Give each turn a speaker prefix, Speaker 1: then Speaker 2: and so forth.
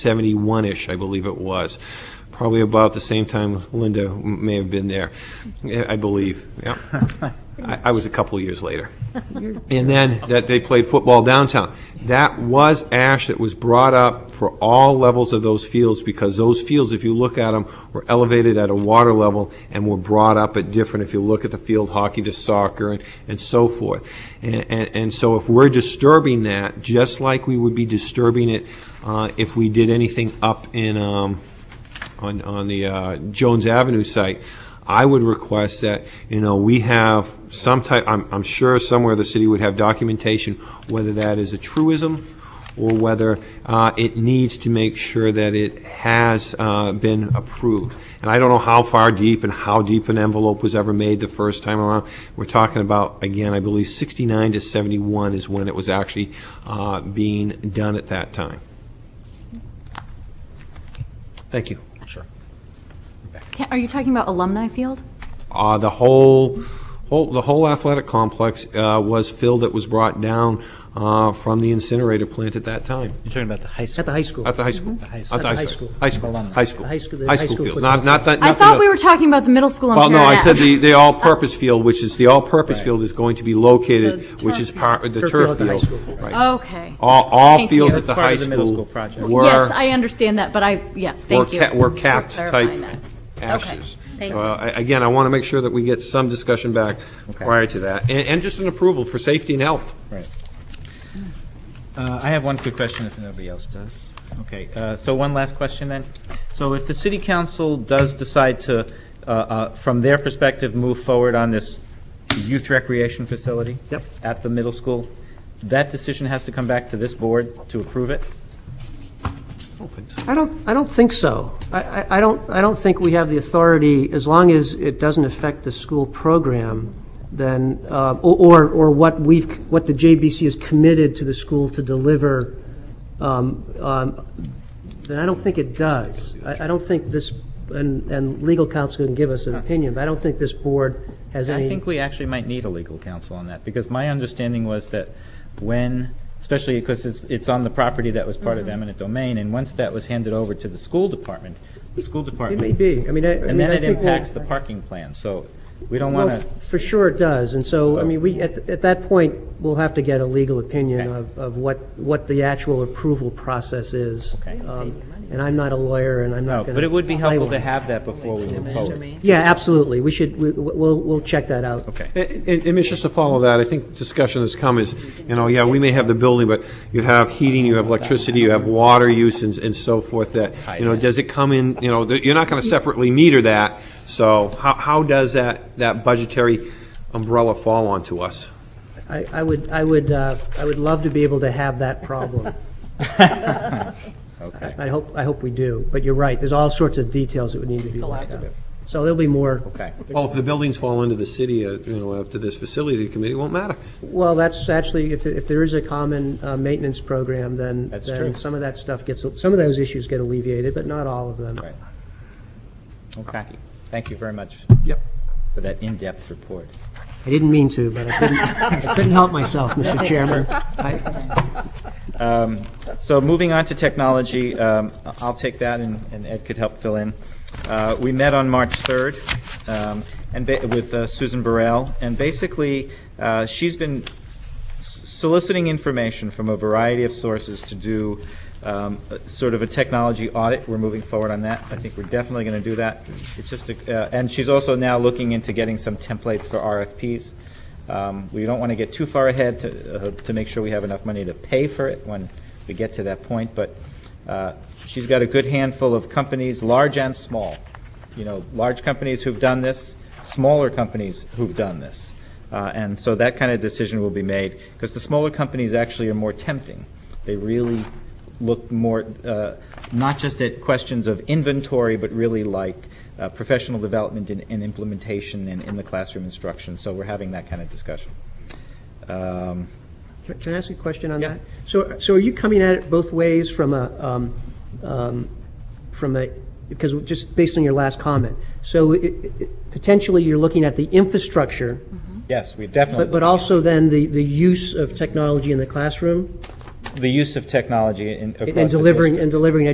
Speaker 1: 71-ish, I believe it was. Probably about the same time Linda m- may have been there, Yeah, I believe, yeah. I I was a couple of years later. And then that they played football downtown. That was ash that was brought up for all levels of those fields because those fields, if you look at them, were elevated at a water level and were brought up at different, if you look at the field hockey, the soccer, and, and so forth. And, and, and so if we're disturbing that, just like we would be disturbing it uh, if we did anything up in, um, on, on the uh, Jones Avenue site, I would request that, you know, we have some type, I'm, I'm sure somewhere the city would have documentation, whether that is a truism or whether uh, it needs to make sure that it has uh, been approved. And I don't know how far deep and how deep an envelope was ever made the first time around. We're talking about, again, I believe 69 to 71 is when it was actually uh, being done at that time. Thank you.
Speaker 2: Sure.
Speaker 3: Ca- Are you talking about alumni field?
Speaker 1: Uh, the whole, whole, the whole athletic complex uh, was filled that was brought down uh, from the incinerator plant at that time,
Speaker 2: You're talking about the high school.
Speaker 4: At the high school.
Speaker 1: at the high school.
Speaker 2: The high
Speaker 1: At
Speaker 2: school.
Speaker 1: the high school. High school,
Speaker 2: Alumni.
Speaker 1: high school.
Speaker 4: The high school- the
Speaker 1: High
Speaker 4: high
Speaker 1: school
Speaker 4: school
Speaker 1: fields, not,
Speaker 4: football
Speaker 1: not that.
Speaker 3: I
Speaker 1: not the
Speaker 3: thought
Speaker 1: other-
Speaker 3: we were talking about the middle school in
Speaker 1: Well,
Speaker 3: Paranet.
Speaker 1: no, I said the, the all-purpose field, which is the all-purpose field is going to be located,
Speaker 4: The
Speaker 1: which is
Speaker 4: turf
Speaker 1: part,
Speaker 4: field.
Speaker 1: the
Speaker 4: Turf
Speaker 1: turf
Speaker 4: field at the high
Speaker 1: field.
Speaker 4: school.
Speaker 1: Right.
Speaker 3: Okay.
Speaker 1: All, all
Speaker 3: Thank
Speaker 1: fields
Speaker 3: you.
Speaker 1: at the
Speaker 2: Part
Speaker 1: high
Speaker 2: of the middle
Speaker 1: school
Speaker 2: school project.
Speaker 1: were.
Speaker 3: Yes, I understand that, but I, yes,
Speaker 1: were
Speaker 3: thank you.
Speaker 1: ca- were
Speaker 3: for
Speaker 1: capped type
Speaker 3: clarifying that.
Speaker 1: ashes.
Speaker 3: Okay, thank
Speaker 1: So,
Speaker 3: you.
Speaker 1: I- Again, I want to make sure that we get some discussion back
Speaker 2: Okay.
Speaker 1: prior to that, and, and just an approval for safety and health.
Speaker 2: Right. Uh, I have one quick question if nobody else does. Okay, uh, so one last question then. So if the city council does decide to, uh, uh, from their perspective, move forward on this youth recreation facility?
Speaker 4: Yep.
Speaker 2: At the middle school, that decision has to come back to this board to approve it?
Speaker 1: Oh,
Speaker 4: I don't, I don't think so. I- I, I don't, I don't think we have the authority, as long as it doesn't affect the school program, then, uh, or, or- or what we've, what the JBC has committed to the school to deliver, um, um, then I don't think it does. I, I don't think this, and, and legal counsel can give us an opinion, but I don't think this board has any.
Speaker 2: I think we actually might need a legal counsel on that, because my understanding was that when, especially because it's, it's on the property that was part
Speaker 4: Mm-hmm.
Speaker 2: of eminent domain, and once that was handed over to the school department, the school
Speaker 4: It
Speaker 2: department.
Speaker 4: may be. I mean, I. I
Speaker 2: And
Speaker 4: mean,
Speaker 2: then
Speaker 4: I
Speaker 2: it
Speaker 4: think we'll-
Speaker 2: impacts the parking plan, so we don't
Speaker 4: Well,
Speaker 2: want to,
Speaker 4: f- for sure it does, and so, I mean, we, at, at that point, we'll have to get a legal opinion
Speaker 2: Okay.
Speaker 4: of, of what, what the actual approval process is.
Speaker 2: Okay.
Speaker 4: Um, And I'm not a lawyer, and I'm
Speaker 2: no,
Speaker 4: not gonna.
Speaker 2: but it would be helpful
Speaker 4: I
Speaker 2: to
Speaker 4: won't.
Speaker 2: have that before we move forward.
Speaker 4: Yeah, absolutely, we should, we, we'll, we'll check that out.
Speaker 2: Okay.
Speaker 1: And, and- and Mitch, just to follow that, I think discussion has come is, you know, yeah, we may have the building, but you have heating, you have electricity, you have water use and, and so forth that, you know, does it come in, you know, that you're not going to separately meter that, so how, how does that, that budgetary umbrella fall onto us?
Speaker 4: I, I would, I would, uh, I would love to be able to have that problem.
Speaker 2: Okay.
Speaker 4: I hope, I hope we do, but you're right, there's all sorts of details that would need to be worked out. So there'll be more,
Speaker 2: Okay.
Speaker 1: Well, if the buildings fall into the city, uh, you know, after this facility committee, it won't matter.
Speaker 4: well, that's actually, if, if there is a common, uh, maintenance program, then.
Speaker 2: That's
Speaker 4: then
Speaker 2: true.
Speaker 4: Some of that stuff gets, some of those issues get alleviated, but not all of them.
Speaker 2: Right. Okay. Thank you very much
Speaker 1: Yep.
Speaker 2: for that in-depth report.
Speaker 4: I didn't mean to, but I couldn't, I couldn't help myself, Mr. Chairman. I-
Speaker 2: So moving on to technology, um, I'll take that and and Ed could help fill in. Uh, We met on March 3rd um, and ba- with uh, Susan Burrell, and basically, uh, she's been s- soliciting information from a variety of sources to do um, a- sort of a technology audit. We're moving forward on that. I think we're definitely going to do that. It's just, a- uh, and she's also now looking into getting some templates for RFPs. Um, We don't want to get too far ahead to, uh, to make sure we have enough money to pay for it when we get to that point, but uh, she's got a good handful of companies, large and small. You know, large companies who've done this, smaller companies who've done this. Uh, And so that kind of decision will be made, because the smaller companies actually are more tempting. They really look more, uh, not just at questions of inventory, but really like uh, professional development and and implementation and in the classroom instruction. So we're having that kind of discussion. Um,
Speaker 4: Can can I ask a question on
Speaker 2: Yeah.
Speaker 4: that? So, so are you coming at it both ways from a, um, um, from a, because just based on your last comment, so it- it- potentially you're looking at the infrastructure,
Speaker 2: Yes, we
Speaker 4: but,
Speaker 2: definitely,
Speaker 4: but also then the, the use of technology in the classroom
Speaker 2: the use of technology in across the
Speaker 4: and delivering,
Speaker 2: district.
Speaker 4: and delivering